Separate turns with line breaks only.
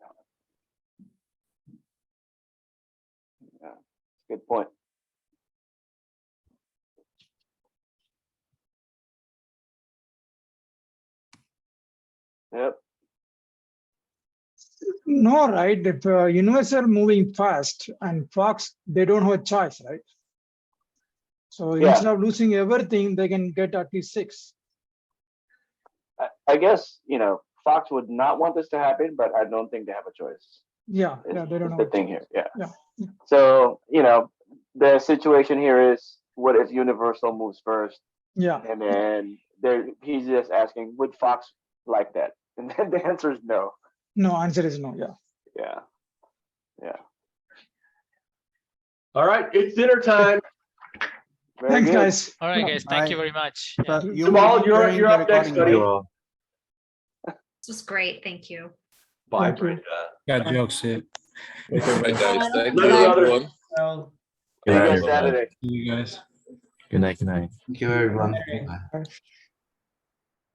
Good point. Yep,
No, right, if uh, universe are moving fast and Fox, they don't have a choice, right? So
Yeah.
instead of losing everything, they can get at least six.
I, I guess, you know, Fox would not want this to happen, but I don't think they have a choice.
Yeah,
is-
yeah, they
is
don't
The
have. a
thing
choice.
here, yeah.
Yeah, yeah.
So, you know, the situation here is what if Universal moves first?
Yeah,
And then there, he's just asking, would Fox like that? And then the answer is no.
no, answer is no, yeah.
Yeah.
All right, it's dinner time.
Very
Thanks,
good.
guys.
All right,
Yeah.
guys, thank you very much. Yeah.
But you will
Jamal,
be
Uh, you're,
hearing
you're
the
up next,
recording
buddy.
later.
This was great, thank you.
Bye,
Thank you.
Brenda.
Got jokes, eh, yeah.
Right, guys. Thank
Let
you,
it out.
everyone.
Well,
See you
Good
guys
night.
Saturday.
See you guys.
Good night, good night.
Thank you, everyone.
okay.